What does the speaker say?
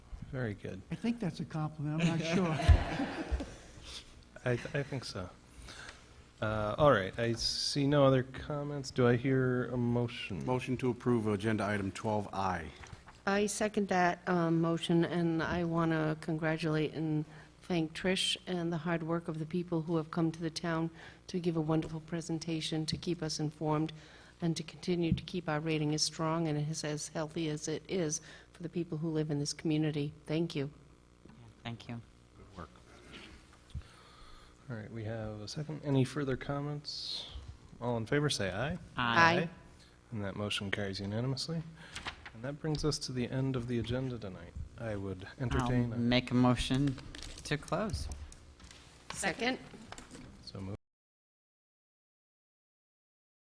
Very good. I think that's a compliment, I'm not sure. I, I think so. Uh, all right, I see no other comments. Do I hear a motion? Motion to approve agenda item 12I. I second that um, motion, and I want to congratulate and thank Trish and the hard work of the people who have come to the town to give a wonderful presentation, to keep us informed, and to continue to keep our rating as strong and as- as healthy as it is for the people who live in this community. Thank you. Thank you. All right, we have a second. Any further comments? All in favor, say aye. Aye. And that motion carries unanimously. And that brings us to the end of the agenda tonight. I would I'll entertain, make a motion to close. Second?